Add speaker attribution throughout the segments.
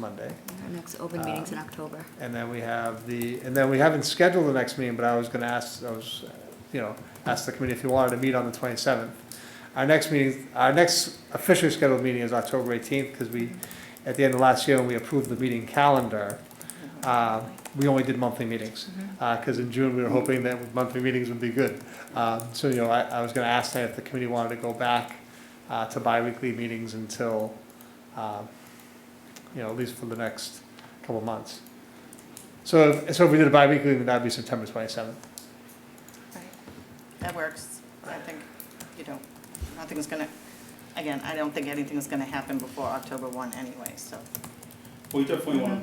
Speaker 1: Monday.
Speaker 2: Our next
Speaker 1: Uh,
Speaker 2: open meeting's in October.
Speaker 1: And then we have the, and then we haven't scheduled the next meeting, but I was gonna ask, I was, uh, you know, ask the committee if you wanted to meet on the twenty-seventh. Our next meeting, our next officially scheduled meeting is October eighteenth, because we, at the end of last year, when we approved the meeting calendar, uh, we only did monthly meetings,
Speaker 3: Mm-hmm,
Speaker 1: because Uh, in June, we were hoping that monthly meetings would be good. Uh, So, you know, I, I was gonna ask that if the committee wanted to go back uh, to bi-weekly meetings until, uh, you know, at least for the next couple of months. So, if- so if we did a bi-weekly, then that'd be September twenty-seventh.
Speaker 4: Right. That works. I think, you know, nothing's gonna, again, I don't think anything's gonna happen before October one anyway, so.
Speaker 5: We definitely want to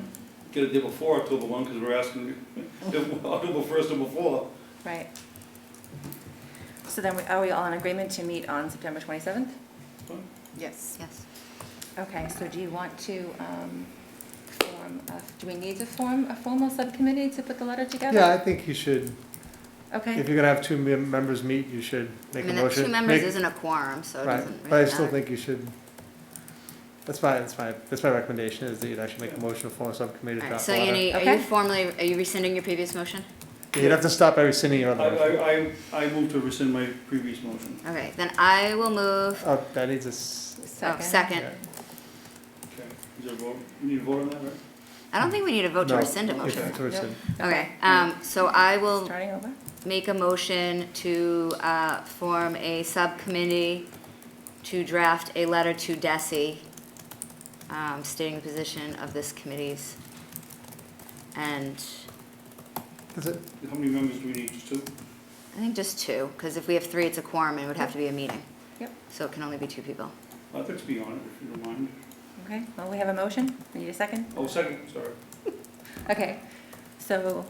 Speaker 5: get it there before October one, because we're asking, if October first or before.
Speaker 3: Right. So then, we- are we all in agreement to meet on September 27th?
Speaker 4: Yes.
Speaker 2: Yes.
Speaker 3: Okay, so do you want to um, form, a- do we need to form a formal subcommittee to put the letter together?
Speaker 1: Yeah, I think you should, if
Speaker 3: Okay,
Speaker 1: you're gonna have two mem- members meet, you should
Speaker 2: I
Speaker 1: make a
Speaker 2: mean, that
Speaker 1: motion.
Speaker 2: two members
Speaker 1: Make-
Speaker 2: isn't a quorum, so it
Speaker 1: Right,
Speaker 2: doesn't really
Speaker 1: but I still
Speaker 2: matter.
Speaker 1: think you should, that's my, that's my, that's my recommendation, is that you'd actually make a motion to form a subcommittee to
Speaker 2: All
Speaker 1: draft
Speaker 2: right, So
Speaker 1: a
Speaker 2: you
Speaker 1: letter.
Speaker 2: need, are you
Speaker 3: Okay.
Speaker 2: formally, are you rescinding your previous motion?
Speaker 1: You'd have to stop every single year
Speaker 5: I,
Speaker 1: on the motion.
Speaker 5: I, I- I move to rescind my previous motion.
Speaker 2: Okay, then I will move,
Speaker 1: Oh, that needs a, s-
Speaker 2: oh,
Speaker 3: second.
Speaker 2: second.
Speaker 1: yeah.
Speaker 5: Okay. Is there a vote? You need to vote on that, right?
Speaker 2: I don't think we need a vote to
Speaker 1: No,
Speaker 2: rescind a
Speaker 1: you
Speaker 2: motion.
Speaker 1: have to rescind.
Speaker 2: Okay, um, so I will
Speaker 3: Starting over?
Speaker 2: make a motion to, uh, form a subcommittee to draft a letter to Desi, um, stating the position of this committee's and
Speaker 1: Is it,
Speaker 5: How many members do we need? Just two?
Speaker 2: I think just two, because if we have three, it's a quorum and it would have to be a meeting.
Speaker 3: Yep.
Speaker 2: So it can only be two people.
Speaker 5: I'd like to be on it, if you don't mind.
Speaker 3: Okay, well, we have a motion. We need a second?
Speaker 5: Oh, second, sorry.
Speaker 3: Okay, so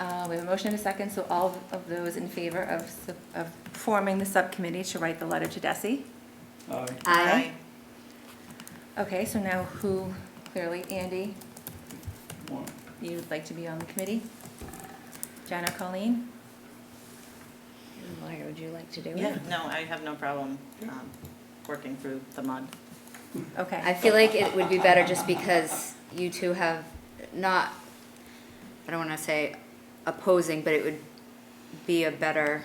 Speaker 3: uh, we have a motion and a second, so all of those in favor of sub- of forming the subcommittee to write the letter to Desi?
Speaker 5: Aye.
Speaker 2: Aye.
Speaker 3: Okay, so now who, clearly Andy,
Speaker 5: One.
Speaker 3: You'd like to be on the committee? John or Colleen?
Speaker 2: Lawyer, would you like to do
Speaker 4: Yeah, no, I have no problem um, working through the mud.
Speaker 2: I
Speaker 3: Okay,
Speaker 2: feel like it would be better just because you two have not, I don't want to say opposing, but it would be a better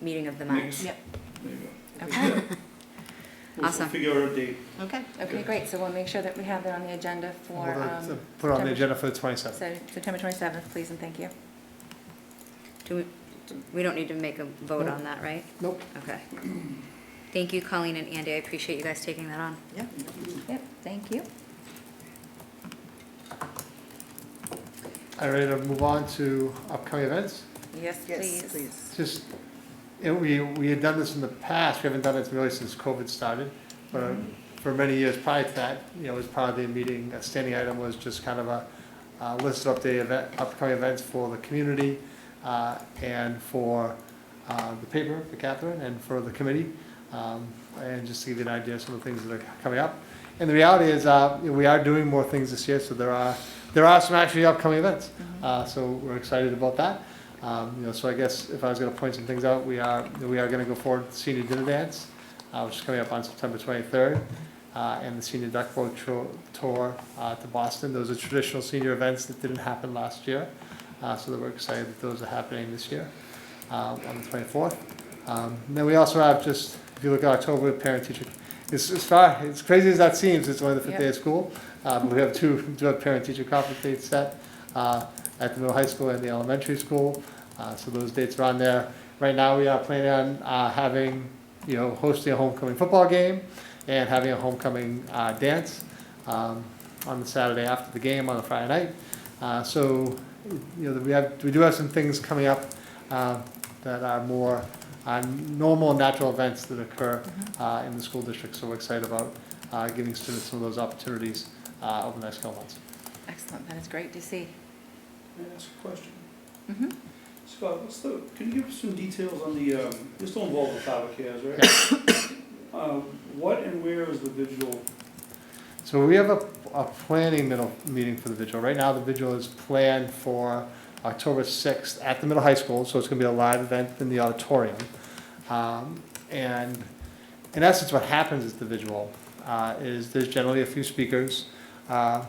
Speaker 2: meeting of the minds.
Speaker 5: Mix.
Speaker 3: Yep.
Speaker 5: There you go.
Speaker 3: Okay.
Speaker 5: We'll
Speaker 2: Awesome.
Speaker 5: figure out a date.
Speaker 4: Okay.
Speaker 3: okay, great, so we'll make sure that we have that on the agenda for,
Speaker 1: well, that's-
Speaker 3: um,
Speaker 1: Put on the
Speaker 3: September-
Speaker 1: agenda for the twenty-seventh.
Speaker 3: so September 27th, please, and thank you.
Speaker 2: Do we, we don't need to make a vote on that, right?
Speaker 1: Nope.
Speaker 2: Okay. Thank you, Colleen and Andy. I appreciate you guys taking that on.
Speaker 4: Yeah.
Speaker 3: Yep, thank you.
Speaker 1: All right, I'll move on to upcoming events.
Speaker 3: Yes, please.
Speaker 1: Just, you know, we, we had done this in the past, we haven't done it really since COVID started, but uh, for many years prior to that, you know, as part of the meeting, a standing item was just kind of a, uh list of update event, upcoming events for the community, uh, and for, uh, the paper, for Catherine, and for the committee, um, and just to give you an idea of some of the things that are coming up. And the reality is, uh, you know, we are doing more things this year, so there are, there are some actually upcoming events, uh, so we're excited about that. Um, you know, so I guess if I was gonna point some things out, we are, we are gonna go forward with senior dinner dance, uh, which is coming up on September twenty-third, uh, and the senior duck boat tro- tour, uh, to Boston. Those are traditional senior events that didn't happen last year, uh, so that we're excited that those are happening this year, uh, on the twenty-fourth. Um, and then we also have just, if you look at October, parent teacher, it's, it's far, it's crazy as that seems, it's only the fifth day of school. Uh, but we have two, do have parent teacher conference dates set, uh, at the middle high school and the elementary school. Uh, so those dates are on there. Right now, we are planning on, uh, having, you know, hosting a homecoming football game and having a homecoming, uh, dance, um, on the Saturday after the game on a Friday night. Uh, so, you know, we have, we do have some things coming up, uh, that are more, uh, normal, natural events that occur, uh, in the school district. So we're excited about, uh, giving students some of those opportunities, uh, over the next couple months.
Speaker 3: Excellent, that is great to see.
Speaker 5: May I ask a question?
Speaker 3: Mhm.
Speaker 5: Scott, what's the, can you give us some details on the, um, you're still involved with Tavakers, right? Uh, What and where is the vigil?
Speaker 1: So we have a, a planning middle meeting for the vigil. Right now, the vigil is planned for October sixth at the middle high school, so it's gonna be a live event in the auditorium. Um, and in essence, what happens at the vigil, uh, is there's generally a few speakers, uh,